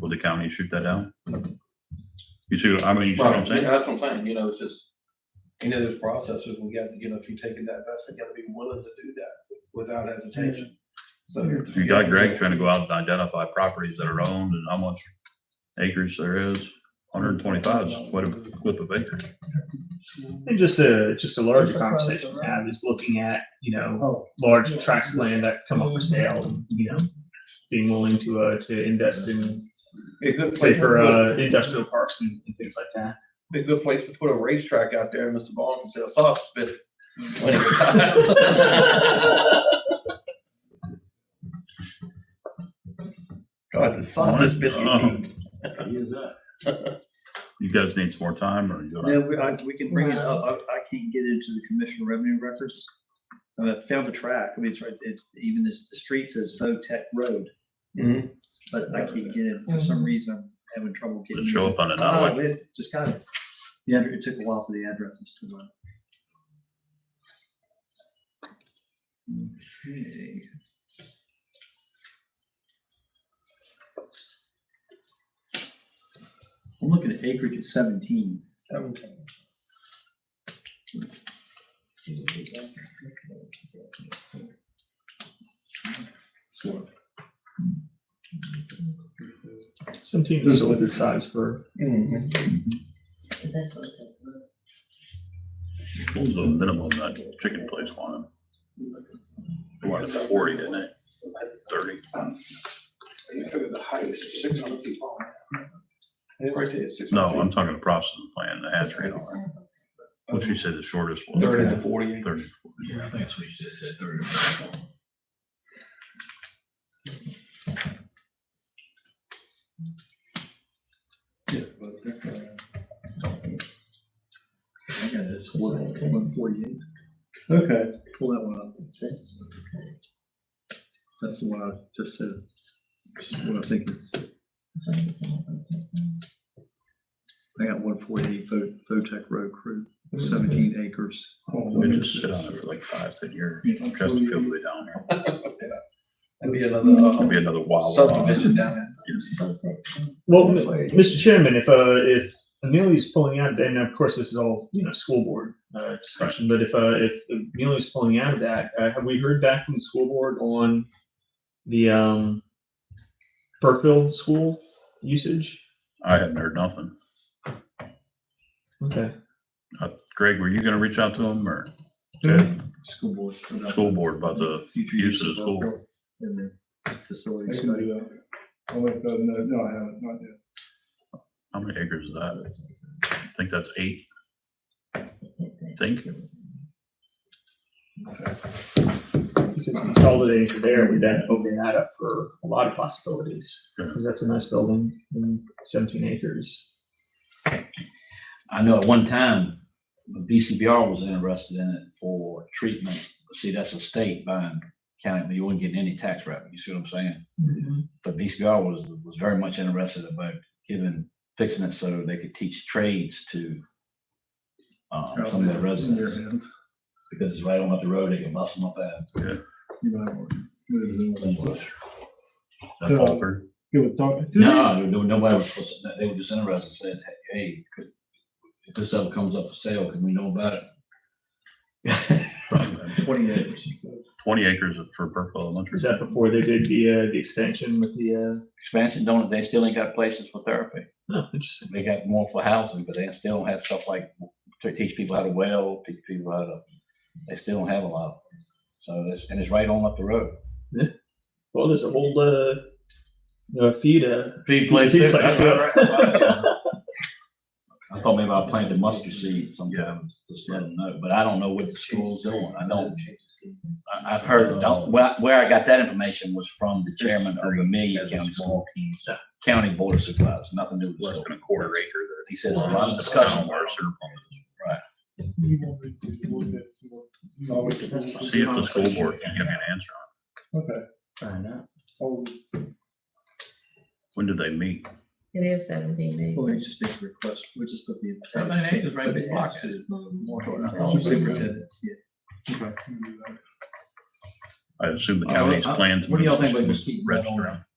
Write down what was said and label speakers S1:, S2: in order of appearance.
S1: Will the county shoot that down? You see, what I mean, you see what
S2: Well,
S1: I'm saying?
S2: that's what I'm saying, you know, it's just, any of those processes, we got, you know, if you take taking that investment, you gotta be willing to do that without hesitation. So.
S1: If You got Greg trying to go out and identify properties that are owned and how much acres there is. Hundred and twenty-five is quite a clip of acres.
S3: And just a, just a larger
S4: Just across
S3: conversation
S4: the
S3: to have is looking at, you know,
S4: Oh,
S3: large
S4: Yeah.
S3: tracts of land that come up for sale, and, you know, being willing to, uh, to invest in,
S2: Be a good
S3: say
S2: place,
S3: for, uh,
S2: to
S3: industrial parks and, and things like
S2: put-
S3: that.
S2: be a good place to put a racetrack out there, Mr. Ball can sell sausage, but. God, the sausage biscuit. king.
S1: You guys need some more time or you
S5: Yeah,
S1: gonna?
S5: we, I, we can bring it up. I, I can't get into the commission revenue records. I mean, I found the track. I mean, it's right, it's even this, the street says Votech Road,
S2: Mhm.
S5: but I can't get it. For some reason, I'm having trouble getting.
S1: It'll show up on it now,
S5: Oh,
S1: like,
S5: it just got it. The address, it took a while for the addresses to run. Okay. I'm looking at acreage at seventeen. So,
S3: Some teams are still a good size for,
S2: Mhm.
S1: what was the minimum that chicken place wanted? They wanted forty, didn't they? Thirty.
S2: You figure the height is six hundred feet long. It's right there, it's six hundred
S1: No,
S2: feet.
S1: I'm talking the processing plant, the hatchery and all that. What she said the shortest was.
S2: Thirty to forty.
S1: Thirty.
S6: Yeah, I think that's what you said, said thirty.
S5: I got it, it's one, one forty-eight.
S2: Okay.
S5: Pull that one up. That's the one I just said. This is what I think is, I got one forty-eight Vo- Votech Road Crew, seventeen acres.
S1: We just sit on it for like five, ten years. Just feel way down there.
S2: That'd be another,
S1: It'll be
S2: uh,
S1: another wild.
S2: subdivision down there.
S3: well, m- Mr. Chairman, if, uh, if Amelia's pulling out, then of course this is all, you know, school board, uh, discussion, but if, uh, if Amelia's pulling out of that, uh, have we heard back from the school board on the, um, Burkeville school usage?
S1: I haven't heard nothing.
S3: Okay.
S1: Uh, Greg, were you gonna reach out to them or
S3: Mhm.
S5: School board.
S1: school board about the
S5: Future
S1: use of the
S5: Votech
S1: school?
S5: And the
S4: I
S5: facilities.
S4: can do that. Oh, wait, no, no, no, I haven't, not yet.
S1: How many acres is that? I think that's eight. Think,
S3: Because consolidating from there would then open that up for a lot of possibilities.
S1: Yeah.
S3: Because that's a nice building, and seventeen acres.
S7: I know at one time, BCBR was interested in it for treatment. See, that's a state buying county, but you wouldn't get any tax revenue, you see what I'm saying? But BCBR was, was very much interested about giving, fixing it so they could teach trades to um, some of their residents, because it's right on up the road, they can bust them up at.
S1: that Alford?
S4: Give a thought. Do they-
S7: No, no, nobody was, supposed to- they were just interested, said, hey, could- if this ever comes up for sale, can we know about it?
S5: Twenty acres.
S1: Twenty acres for Burkeville Elementary.
S3: Was that before they did the, uh, the expansion with the,
S7: Expansion, don't, they still ain't got places for therapy.
S3: uh, oh, interesting.
S7: they got more for housing, but they still don't have stuff like to teach people how to weld, teach people how to, they still don't have a lot. of them. So that's, and it's right on up the road.
S3: Well, there's a whole, uh, uh, feed, uh,
S7: Feed
S3: place, Feed too. place, yeah.
S7: I thought maybe I planted mustard seed sometime, just let them know, but I don't know what the school's doing. I don't. I- I've heard, don't, where, where I got that information was from the chairman of the Million County School, County Board of Supplies, nothing to do with
S1: Less
S7: school.
S1: than a quarter acre there.
S7: He says a lot of discussion.
S4: Oh, we can-
S1: See if the school board can give me an answer.
S4: Okay. Oh,
S1: When did they meet?
S8: It is seventeen eh? days.
S5: Well, they just need to request, we just put the.
S2: Seventeen acres right there.
S5: Superintendent, yeah.
S4: we can do that.
S1: I assume the
S7: Uh,
S1: county's
S7: uh,
S1: plans.
S7: what do y'all think about
S1: would
S7: just keeping that on?
S1: register 'em.